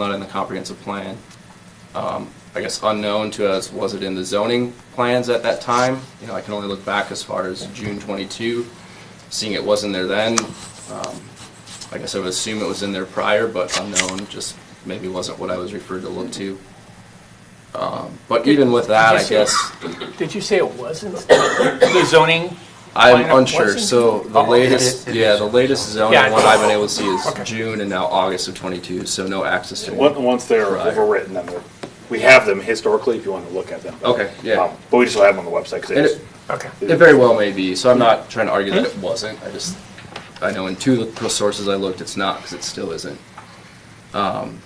not in the comprehensive plan. Um, I guess unknown to us, was it in the zoning plans at that time? You know, I can only look back as far as June 22, seeing it wasn't there then. um, I guess I would assume it was in there prior, but unknown, just maybe wasn't what I was referred to look to. Um, But even with that, I Did you guess, Did you say it wasn't the zoning? I'm Minor unsure, wasn't? so the Oh, okay. latest, It is- it yeah, is. the latest Yeah, I- zoning one I've been able to see Okay. is June and now August of 22, so no access to. Once, once they're Right. overwritten, then they're, we have them historically if you want to look at them. Okay, yeah. Um, But we just don't have them on the website And because it- Okay. It very well may be, so I'm not trying to argue that it wasn't, I just, I know in two of the sources I looked, it's not, because it still isn't. Um,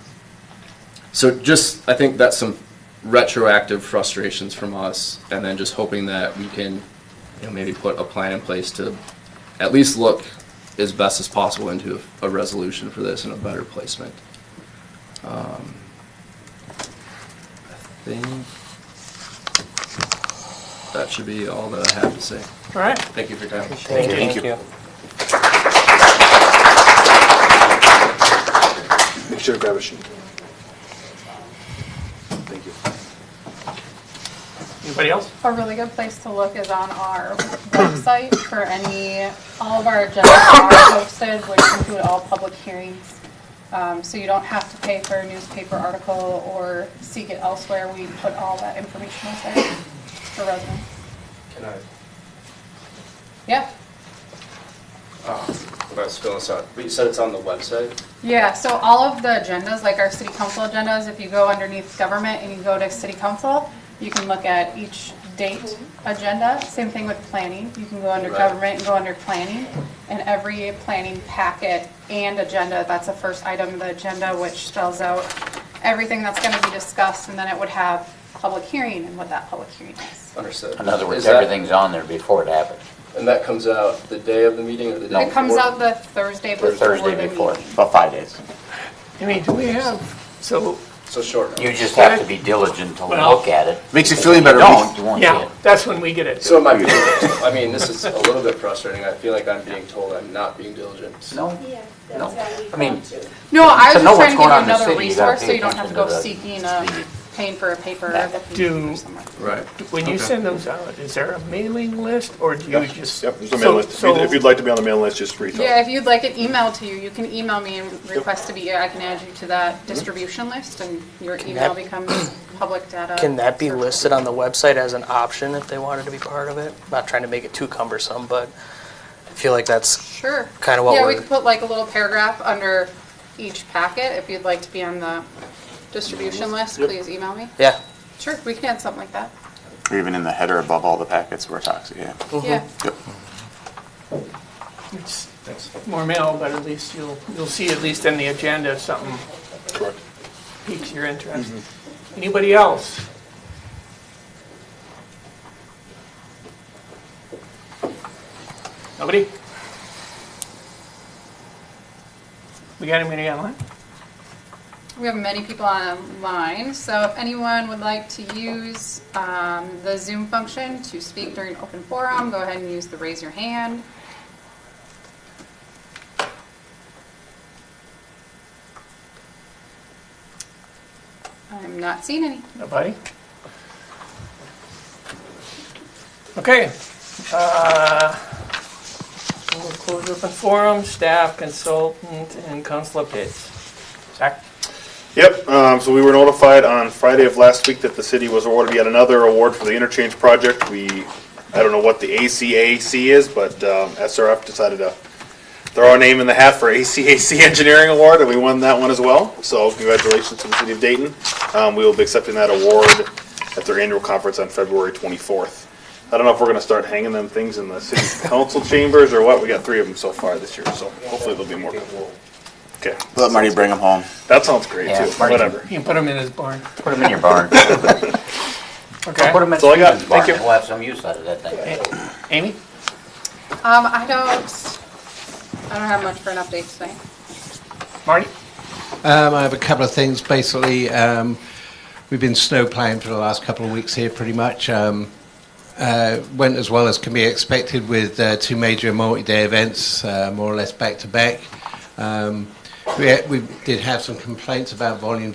So just, I think that's some retroactive frustrations from us, and then just hoping that we can, you know, maybe put a plan in place to at least look as best as possible into a resolution for this and a better placement. Um, I think that should be all that I have to say. All right. Thank you for your time. Thank you. Thank you. make sure to grab a sheet. Thank you. Anybody else? A really good place to look is on our website for any, all of our agendas are posted, which include all public hearings. Um, So you don't have to pay for a newspaper article or seek it elsewhere. We put all that information out there for residents. Can I, Yeah, when I was filling this out, but you said it's on the website? yeah, so all of the agendas, like our city council agendas, if you go underneath government and you go to city council, you can look at each date agenda. Same thing with planning, you can go under Right. government and go under planning. And every planning packet and agenda, that's the first item of the agenda, which spells out everything that's gonna be discussed, and then it would have public hearing and what that public hearing is. Understood. In other words, Is that- everything's on there before it happens. And that comes out the day of the meeting or the day? It comes before? out the Thursday before The Thursday the before, meeting. about five days. I mean, do we have, so, So short. You just have to be diligent to Well- look at it. Makes you feel any If better, don't, we- you won't see yeah, it. that's when we get it. So am I being, I mean, this is a little bit frustrating. I feel like I'm being told I'm not being diligent. No, Yeah, no. that's how we I mean, come to. No, I was just To know what's trying to give you going on in the another city, you gotta resource, so pay you don't have to go attention to seeking the a, city. paying for a paper or That- looking Do- for somewhere. Right. When you Okay. send those out, is there a mailing list or do you just? Yep, there's a mail list. If So- you'd- If you'd like to be on the mail list, just reach Yeah, out. if you'd like it emailed to you, you can email me and request to be, I can add you to Mm-hmm. that distribution list, and your email that- becomes public data. Can that be listed on the website as an option if they wanted to be part of it? Not trying to make it too cumbersome, but I feel like that's, Sure. kinda what Yeah, we we're- could put like a little paragraph under each packet, if you'd like to be on the distribution list, please email me. yeah, Sure, we can add something like that, Or even in the header above all the packets where it talks, yeah. yeah. Yep. It's More mail, but at least you'll, you'll see at least in the agenda if something Correct. piques your interest. Anybody else? Nobody? We got anybody online? We have many people online, so if anyone would like to use um, the Zoom function to speak during open forum, go ahead and use the raise your hand. I'm not seeing any. Nobody? Okay. uh, We'll close open forum, staff, consultant, and council updates. Zach? Yep, um, so we were notified on Friday of last week that the city was awarded yet another award for the interchange project. We, I don't know what the ACAC is, but, um, SRF decided to throw our name in the hat for ACAC Engineering Award, and we won that one as well. So congratulations to the city of Dayton. Um, we will be accepting that award at their annual conference on February twenty-fourth. I don't know if we're gonna start hanging them things in the city council chambers or what. We got three of them so far this year, so hopefully there'll be more. Okay, Let Marty bring them home. that sounds great Yeah, too, Marty. whatever. You can put them in his barn. Put them in your barn. Put Okay. them in That's all I got. Stephen's barn, Thank you. we'll have some use out of that thing. Amy? Um, I don't, I don't have much for an update today. Marty? Um, I have a couple of things. Basically, um, we've been snow plowing for the last couple of weeks here, pretty much. Um, uh, went as well as can be expected with uh, two major multi-day events, uh, more or less back to back. Um, we, we did have some complaints about volumes